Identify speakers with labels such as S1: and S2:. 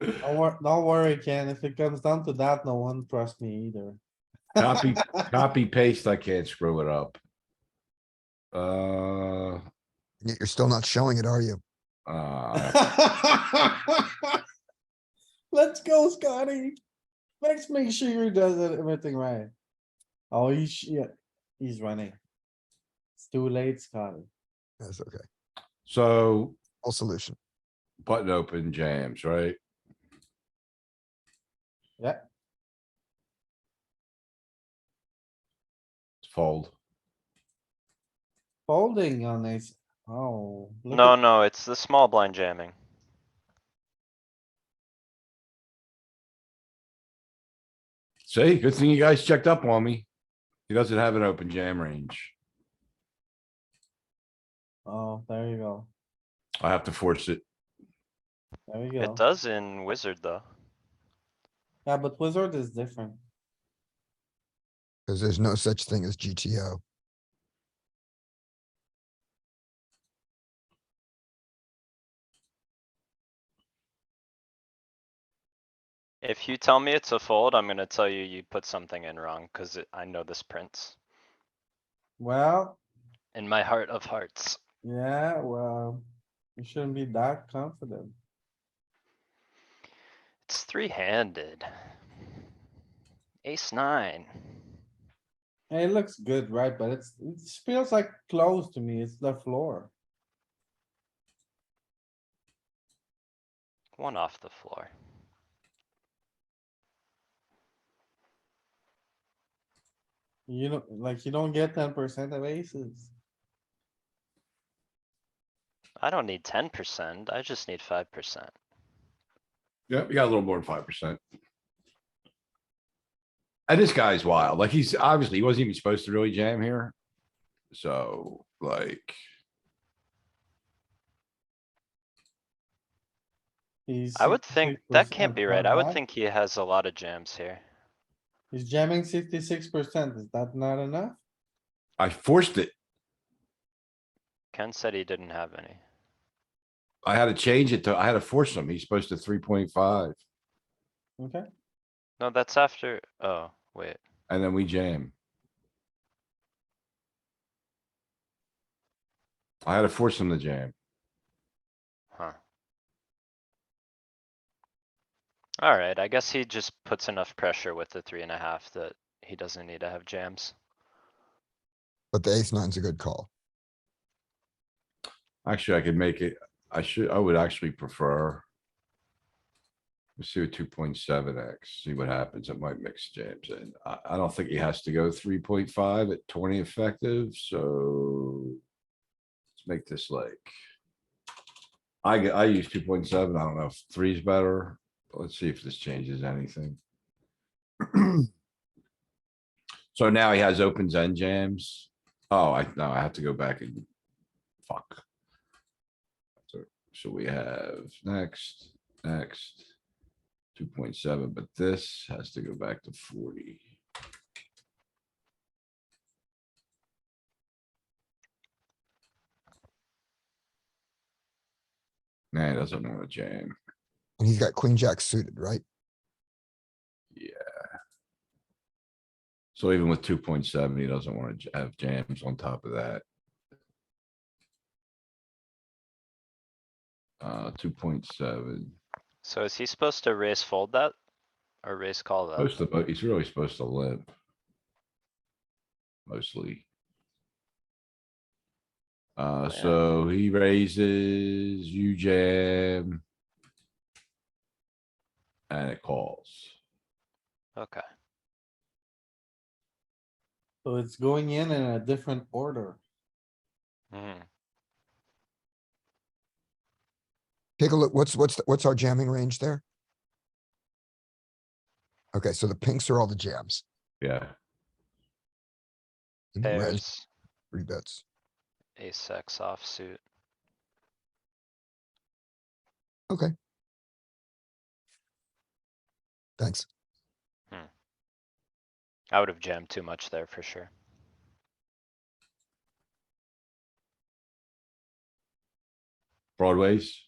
S1: Don't wor- don't worry, Ken. If it comes down to that, no one trusts me either.
S2: Copy, copy paste, I can't screw it up. Uh,
S3: Yet You're still not showing it, are you?
S2: uh,
S1: Let's go, Scotty. Let's make sure he does it- everything right. Oh, he's, yeah, he's running. It's too late, Scotty.
S3: That's okay.
S2: so
S3: All solution.
S2: button open jams, right?
S1: Yeah.
S2: Fold.
S1: Folding on this. Oh. look
S4: No,
S1: at-
S4: no, it's the small blind jamming.
S2: See, good thing you guys checked up on me. He doesn't have an open jam range.
S1: Oh, there you go.
S2: I have to force it.
S1: There you
S4: It
S1: go.
S4: does in wizard though.
S1: Yeah, but wizard is different.
S3: Because there's no such thing as GTO.
S4: If you tell me it's a fold, I'm gonna tell you you put something in wrong, cuz I know this prince.
S1: Well,
S4: In my heart of hearts.
S1: yeah, well, you shouldn't be that confident.
S4: It's three handed. Ace nine.
S1: Hey, It looks good, right? But it's, it feels like close to me. It's the floor.
S4: One off the floor.
S1: You know, like you don't get ten percent of aces.
S4: I don't need ten percent, I just need five percent.
S2: Yep, you got a little more than five percent. And this guy's wild. Like he's obviously, he wasn't even supposed to really jam here. So like,
S1: He's
S4: I would think, that can't
S1: 66%
S4: be right.
S1: not
S4: I would
S1: bad.
S4: think he has a lot of jams here.
S1: He's jamming sixty-six percent. Is that not enough?
S2: I forced it.
S4: Ken said he didn't have any.
S2: I had to change it to, I had to force him. He's supposed to three point five
S1: Okay,
S4: No, that's after, oh, wait.
S2: and then we jam. I had to force him to jam.
S4: Huh. Alright, I guess he just puts enough pressure with the three and a half that he doesn't need to have jams.
S3: But the ace nine's a good call.
S2: Actually, I could make it, I should, I would actually prefer. Let's see what two point seven X, see what happens. It might mix jams in. I, I don't think he has to go three point five at twenty effective, so. Let's make this like. I, g- I use two point seven. I don't know if three is better. but Let's see if this changes anything. So now he has opens and jams. Oh, I, no, I have to go back and. Fuck. So- So we have next, next. Two point seven, but this has to go back to forty. Nah, he doesn't wanna jam.
S3: And he's got queen jack suited, right?
S2: So even with two point seven, he doesn't wanna j- have jams on top of that. Uh, two point seven.
S4: So is he supposed to raise fold that? Or raise call that?
S2: Most of, it- he's really supposed to limp. Mostly. Uh,
S4: Yeah.
S2: so he raises, you jam. And it calls.
S4: Okay,
S1: so it's going in in a different order.
S4: hmm,
S3: Take a look, what's, what's, the- what's our jamming range there? Okay, so the pinks are all the jams.
S2: Yeah,
S3: and the reds,
S4: pairs,
S3: Three bets.
S4: ace X offsuit.
S3: Thanks.
S4: I would have jammed too much there for sure.
S2: broadways.